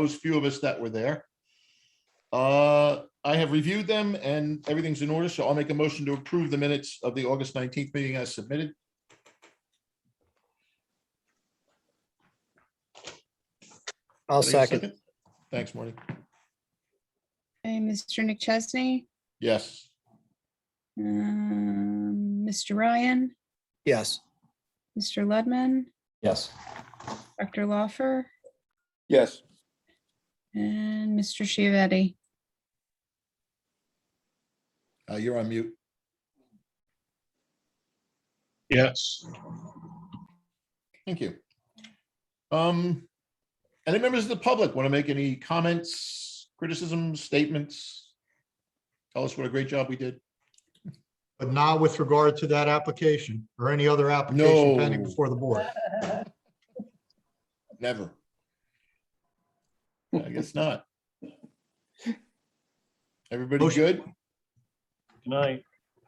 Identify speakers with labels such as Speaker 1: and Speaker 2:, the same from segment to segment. Speaker 1: those few of us that were there. Uh, I have reviewed them and everything's in order, so I'll make a motion to approve the minutes of the August nineteenth meeting as submitted.
Speaker 2: I'll
Speaker 1: Can I get a
Speaker 2: second.
Speaker 1: Thanks, Marty.
Speaker 3: Okay, Mr. Nick Chesney,
Speaker 1: Yes.
Speaker 3: um, Mr. Ryan,
Speaker 2: Yes.
Speaker 3: Mr. Ludman,
Speaker 4: Yes.
Speaker 3: Dr. Lawfer,
Speaker 1: Yes.
Speaker 3: and Mr. Chiavetti.
Speaker 1: Uh, you're on mute.
Speaker 5: Yes.
Speaker 1: Thank you. Um, any members of the public want to make any comments, criticisms, statements? Tell us what a great job we did.
Speaker 6: But not with regard to that application or any other application pending
Speaker 1: No.
Speaker 6: before the board.
Speaker 1: Never. I guess not. Everybody
Speaker 6: Motion-
Speaker 1: good?
Speaker 5: Good night.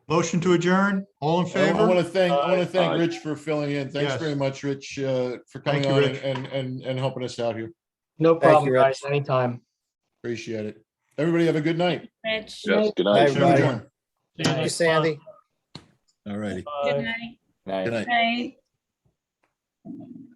Speaker 6: Motion to adjourn, all
Speaker 1: I
Speaker 6: in
Speaker 1: want
Speaker 6: favor?
Speaker 1: to thank, I want
Speaker 5: Aye,
Speaker 1: to thank
Speaker 5: aye.
Speaker 1: Rich for filling in. Thanks
Speaker 6: Uh, Yes.
Speaker 1: very much, Rich, uh, for coming
Speaker 6: Thank you,
Speaker 1: on
Speaker 6: Rich.
Speaker 1: and, and, and helping us out here.
Speaker 2: No
Speaker 4: problem,
Speaker 2: guys. Anytime.
Speaker 1: Appreciate it. Everybody have a good night.
Speaker 3: Rich.
Speaker 4: Yes, good
Speaker 2: Bye,
Speaker 4: night.
Speaker 1: Show
Speaker 2: everybody.
Speaker 1: adjourn.
Speaker 5: See you
Speaker 2: Hey,
Speaker 5: next
Speaker 2: Sandy.
Speaker 5: month.
Speaker 1: All righty.
Speaker 5: Bye.
Speaker 3: night.
Speaker 4: Night.
Speaker 1: Good night.
Speaker 3: Night.